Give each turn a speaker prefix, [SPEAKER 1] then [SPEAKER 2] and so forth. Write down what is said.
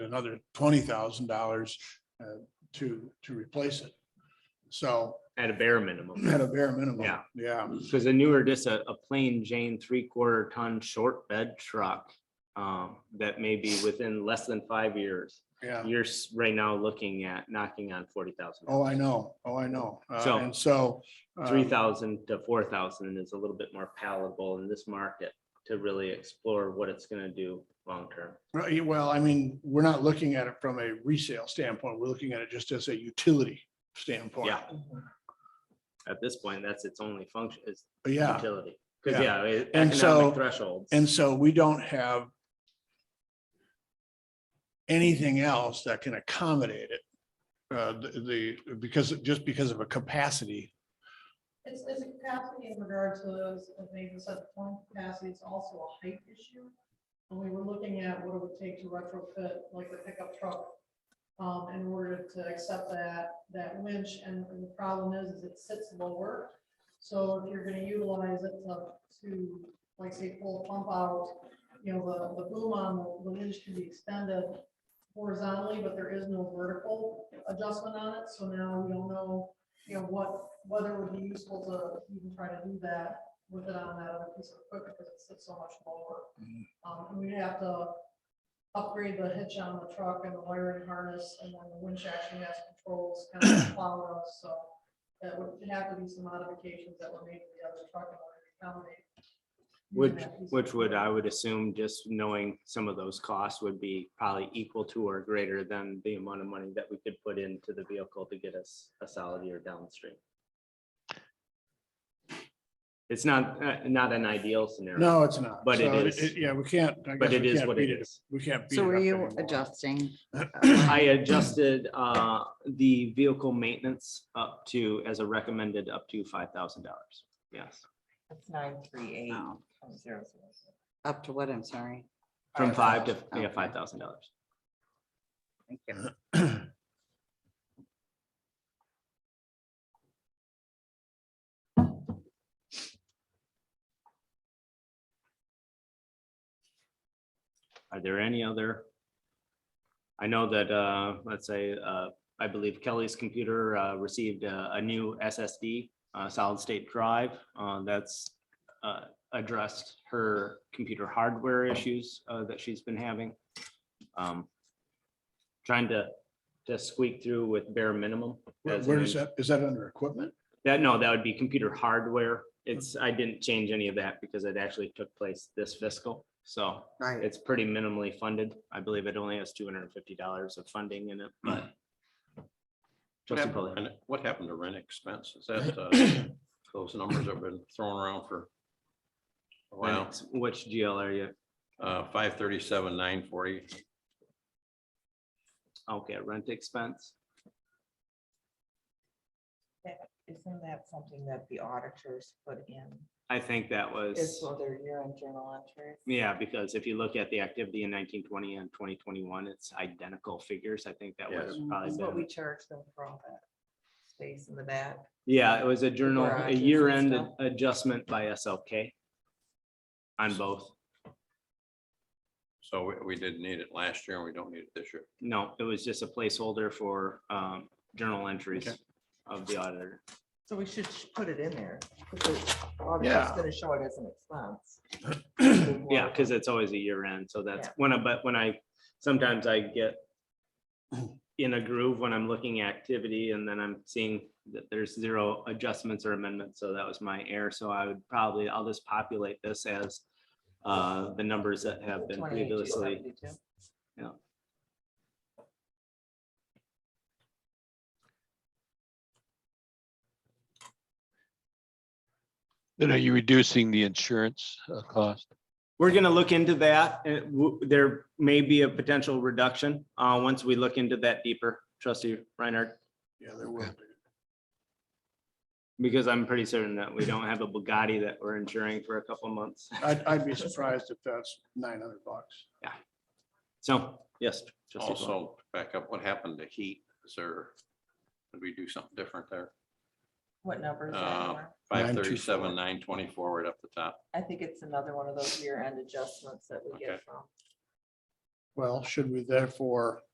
[SPEAKER 1] another twenty thousand dollars uh, to, to replace it. So
[SPEAKER 2] at a bare minimum.
[SPEAKER 1] at a bare minimum.
[SPEAKER 2] Yeah.
[SPEAKER 1] Yeah.
[SPEAKER 2] Because a newer, just a, a plain Jane three-quarter ton short bed truck um, that may be within less than five years,
[SPEAKER 1] Yeah.
[SPEAKER 2] you're s- right now looking at knocking on forty thousand.
[SPEAKER 1] Oh, I know. Oh, I know. Uh,
[SPEAKER 2] So-
[SPEAKER 1] And so. um,
[SPEAKER 2] Three thousand to four thousand is a little bit more palatable in this market to really explore what it's gonna do long-term.
[SPEAKER 1] Right, well, I mean, we're not looking at it from a resale standpoint. We're looking at it just as a utility standpoint.
[SPEAKER 2] Yeah. At this point, that's its only function is
[SPEAKER 1] But Yeah,
[SPEAKER 2] utility. Because,
[SPEAKER 1] Yeah.
[SPEAKER 2] yeah, it-
[SPEAKER 1] And so-
[SPEAKER 2] economic thresholds.
[SPEAKER 1] and so we don't have anything else that can accommodate it. Uh, the, the- because, just because of a capacity.
[SPEAKER 3] It's, it's a capacity in regard to those, I think, the point capacity, it's also a height issue. And we were looking at what it would take to retrofit, like the pickup truck, um, in order to accept that, that winch, and the problem is, is it sits lower. So if you're gonna utilize it to, to, like, say, pull a pump out, you know, the, the boom on, the- the winch can be extended horizontally, but there is no vertical adjustment on it, so now we don't know you know, what, whether it would be useful to even try to do that with it on that other piece of equipment, because it sits so much lower.
[SPEAKER 2] Mm-hmm.
[SPEAKER 1] Mhm.
[SPEAKER 3] Um, and we'd have to upgrade the hitch on the truck and the wiring harness, and then the winch action has controls, kind of follow us, so that would have to be some modifications that were made to the other truck in order to accommodate. using
[SPEAKER 2] Which,
[SPEAKER 3] that piece of
[SPEAKER 2] which would, I
[SPEAKER 3] equipment.
[SPEAKER 2] would assume, just knowing some of those costs would be probably equal to or greater than the amount of money that we could put into the vehicle to get us a solid year downstream. It's not, uh, not an ideal scenario,
[SPEAKER 1] No, it's not.
[SPEAKER 2] But it
[SPEAKER 1] So
[SPEAKER 2] is.
[SPEAKER 1] Yeah, we can't. I
[SPEAKER 2] but
[SPEAKER 1] guess
[SPEAKER 2] it
[SPEAKER 1] we
[SPEAKER 2] is
[SPEAKER 1] can't
[SPEAKER 2] what
[SPEAKER 1] beat
[SPEAKER 2] it is.
[SPEAKER 1] We can't. beat
[SPEAKER 4] So
[SPEAKER 1] it
[SPEAKER 4] were
[SPEAKER 1] up
[SPEAKER 4] you
[SPEAKER 1] anymore.
[SPEAKER 4] adjusting?
[SPEAKER 2] I adjusted uh, the vehicle maintenance up to, as a recommended, up to five thousand dollars. Yes,
[SPEAKER 5] That's nine, three, eight,
[SPEAKER 4] Oh,
[SPEAKER 5] oh, zero, zero, zero.
[SPEAKER 4] Up to what? I'm sorry.
[SPEAKER 2] from five to, yeah,
[SPEAKER 4] Okay.
[SPEAKER 2] five thousand dollars.
[SPEAKER 4] Thank you.
[SPEAKER 2] Are there any other? I know that, uh, let's say, uh, I believe Kelly's computer, uh, received a, a new SSD, uh, solid state drive, uh, that's, uh, addressed her computer hardware issues, uh, that she's been having. Um, Trying to, to squeak through with bare minimum.
[SPEAKER 1] Where
[SPEAKER 2] as
[SPEAKER 1] where
[SPEAKER 2] an
[SPEAKER 1] is that? Is that under equipment?
[SPEAKER 2] that, no, that would be computer hardware. It's, I didn't change any of that because it actually took place this fiscal. So
[SPEAKER 4] Right.
[SPEAKER 2] it's pretty minimally funded. I believe it only has two hundred and fifty dollars of funding in it, but.
[SPEAKER 6] What
[SPEAKER 2] Trustee
[SPEAKER 6] happened to
[SPEAKER 2] Polly,
[SPEAKER 6] rent- what happened to rent expense? Is that, uh, those numbers have been thrown around for a while,
[SPEAKER 2] Lennox, which GL are you?
[SPEAKER 6] uh, five thirty-seven, nine forty.
[SPEAKER 2] Okay, rent expense.
[SPEAKER 5] Isn't that something that the auditors put in
[SPEAKER 2] I think that
[SPEAKER 5] as
[SPEAKER 2] was,
[SPEAKER 5] well their year-end journal entries?
[SPEAKER 2] yeah, because if you look at the activity in nineteen twenty and twenty twenty-one, it's identical figures. I think that was
[SPEAKER 4] Yes.
[SPEAKER 2] probably.
[SPEAKER 5] That's what
[SPEAKER 2] been-
[SPEAKER 5] we charge them for all that space in the back.
[SPEAKER 2] Yeah, it was a journal,
[SPEAKER 5] garages
[SPEAKER 2] a
[SPEAKER 5] and
[SPEAKER 2] year-end
[SPEAKER 5] stuff.
[SPEAKER 2] adjustment by SLK. On both.
[SPEAKER 6] So we, we didn't need it last year and we don't need it this year.
[SPEAKER 2] No, it was just a placeholder for um, journal entries
[SPEAKER 6] Okay.
[SPEAKER 2] of the auditor.
[SPEAKER 5] So we should sh- put it in there. because the auditor's
[SPEAKER 1] Yeah.
[SPEAKER 5] gonna show it as an expense.
[SPEAKER 2] Yeah, because it's always a year end. So that's
[SPEAKER 5] Yeah.
[SPEAKER 2] when I, but when I, sometimes I get in a groove when I'm looking at activity and then I'm seeing that there's zero adjustments or amendments. So that was my error. So I would probably, I'll just populate this as uh, the numbers that have been
[SPEAKER 5] 28,
[SPEAKER 2] previously.
[SPEAKER 5] 272.
[SPEAKER 7] Then are you reducing the insurance uh, cost?
[SPEAKER 2] We're going to look into that. Uh, w- There may be a potential reduction uh, once we look into that deeper. Trustee Reinhardt.
[SPEAKER 1] Yeah, there will. be.
[SPEAKER 2] Because I'm pretty certain that we don't have a Bugatti that we're insuring for a couple of months.
[SPEAKER 1] I'd, I'd be surprised if that's nine hundred bucks.
[SPEAKER 2] So, yes. trustee Paul.
[SPEAKER 6] Also, back up, what happened to heat? Is there, did we do something different there?
[SPEAKER 5] What number is that?
[SPEAKER 6] Uh,
[SPEAKER 5] Mark?
[SPEAKER 6] Five
[SPEAKER 1] 924.
[SPEAKER 6] thirty-seven, nine twenty-four, right up the top.
[SPEAKER 5] I think it's another one of those year-end adjustments that we
[SPEAKER 6] Okay.
[SPEAKER 5] get from.
[SPEAKER 1] Well, should we therefore